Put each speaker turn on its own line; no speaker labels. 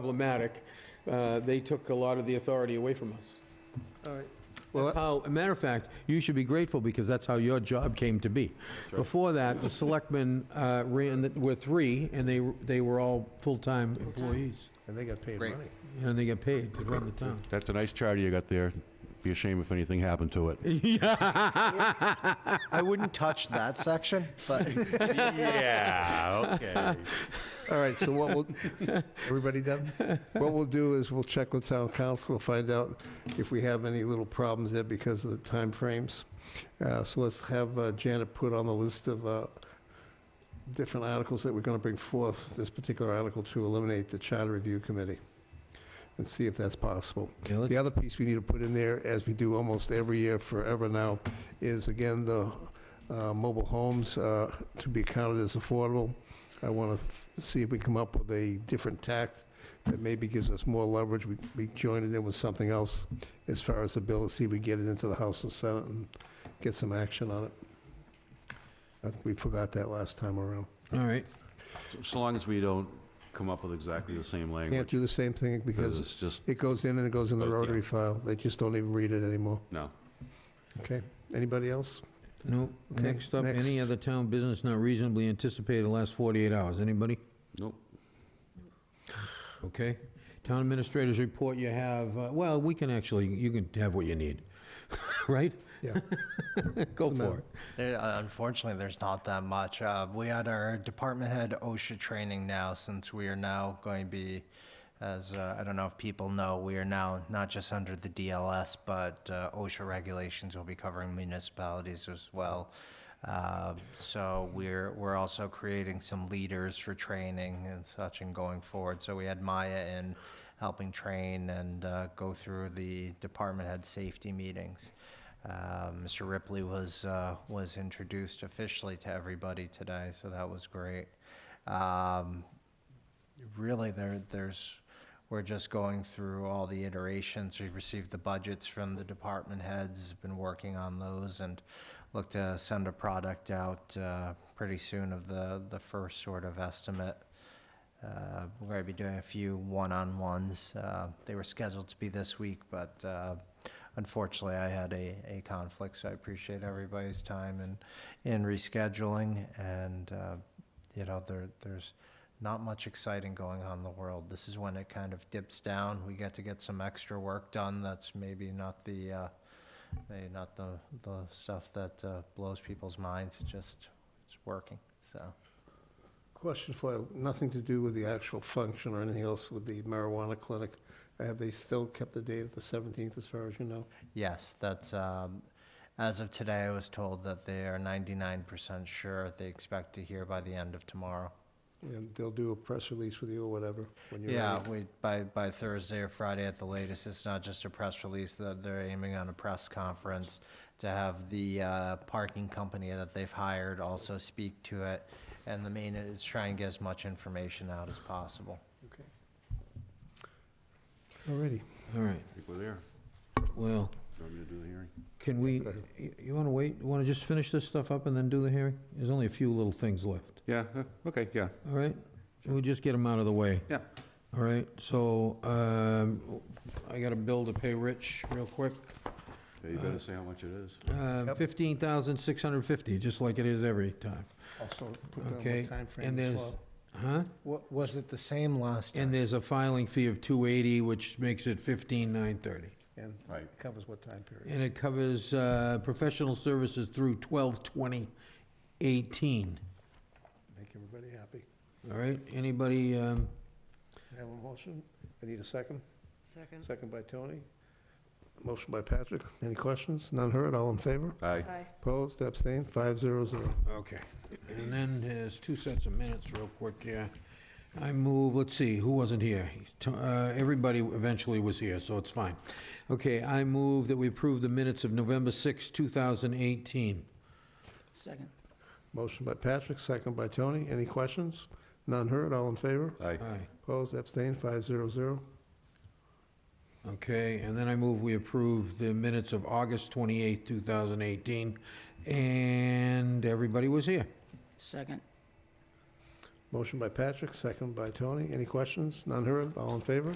problematic, uh, they took a lot of the authority away from us.
All right.
That's how, a matter of fact, you should be grateful because that's how your job came to be. Before that, the selectmen uh, ran, the- were three, and they, they were all full-time employees.
And they got paid
Great.
money.
And they got paid to run the town.
That's a nice charter you got there. Be a shame if anything happened to it.
I wouldn't touch that section, but
Yeah, okay.
All right, so what we'll, everybody done? What we'll do is we'll check with town council, find out if we have any little problems there because of the timeframes. Uh, So let's have uh, Janet put on the list of uh, different articles that we're going to bring forth, this particular article to eliminate the charter review committee and see if that's possible.
Yeah, let's-
The other piece we need to put in there, as we do almost every year forever now, is again, the uh, mobile homes uh, to be counted as affordable. I want to see if we come up with a different tact that maybe gives us more leverage. We- We join it in with something else as far as the bill, see if we get it into the House and Senate and get some action on it. I think we forgot that last time around.
All right,
So long as we don't come up with exactly the same
Can't
language,
do the same thing
because
because
it's just,
it goes in and it goes in the
Oh, yeah.
rotary file. They just don't even read it anymore.
no.
Okay, anybody else?
no,
Okay,
next up, any
next.
other town business not reasonably anticipated in the last 48 hours, anybody?
Nope.
Okay. Town administrators report you have, uh, well, we can actually, you can have what you need, right?
Yeah.
Go
No.
for it.
there, uh, unfortunately, there's not that much. Uh, we had our department head OSHA training now, since we are now going to be, as uh, I don't know if people know, we are now not just under the DLS, but uh, OSHA regulations will be covering municipalities as well. Uh, so we're we're also creating some leaders for training and such and going forward. So we had Maya in helping train and uh, go through the department head safety meetings. Uh, Mr. Ripley was uh, was introduced officially to everybody today, so that was great. Um, really, there there's we're just going through all the iterations. We've received the budgets from the department heads, been working on those, and look to send a product out uh, pretty soon of the the first sort of estimate. Uh, We're going to be doing a few one-on-ones. Uh, They were scheduled to be this week, but uh, unfortunately, I had a, a conflict, so I appreciate everybody's time and, in rescheduling. And, uh, you know, there, there's not much exciting going on in the world. This is when it kind of dips down. We get to get some extra work done that's maybe not the, uh, maybe not the, the stuff that uh, blows people's minds. It just, it's working, so.
Question for you, nothing to do with the actual function or anything else with the marijuana clinic. Have they still kept the date of the 17th, as far as you know?
Yes, that's, um, as of today, I was told that they are ninety-nine percent sure they expect to hear by the end of tomorrow.
And they'll do a press release with you or whatever when you're ready?
Yeah, we, by, by Thursday or Friday at the latest, it's not just a press release, that they're aiming on a press conference to have the, uh, parking company that they've hired also speak to it. And the main is try and get as much information out as possible.
All righty.
All right,
I think we're there.
well,
Do you want me to do the hearing?
can we,
Go ahead.
y- you want to wait, want to just finish this stuff up and then do the hearing? There's only a few little things left,
Yeah, uh, okay, yeah.
all right? We'll just get them out of the way.
Yeah.
All right, so um, I got a bill to pay Rich real quick.
Yeah, You better say how much it is.
Uh,
Yep.
15650 just like it is every time.
Also, put down what
Okay, and
timeframe as
there's-
well.
Huh?
What, was it the same last
And there's a filing fee of 280, which makes it 15930.
And
Right.
covers what time period?
And it covers uh, professional services through 12/20/18.
Make everybody happy.
All right, anybody, um,
Have a motion? I need a second.
Second.
Second by Tony. Motion by Patrick. Any questions? None heard, all in favor?
Aye.
Aye.
Opposed, abstained, five zero zero.
Okay. And then there's two sets of minutes real quick, yeah. I move, let's see, who wasn't here? He's t- uh, Everybody eventually was here, so it's fine. Okay, I move that we approve the minutes of November 6, 2018.
Second.
Motion by Patrick, second by Tony. Any questions? None heard, all in favor?
Aye.
Aye.
Opposed, abstained, five zero zero.
Okay, and then I move we approve the minutes of August 28, 2018, and everybody was here.
Second.
Motion by Patrick, second by Tony. Any questions? None heard? All in favor?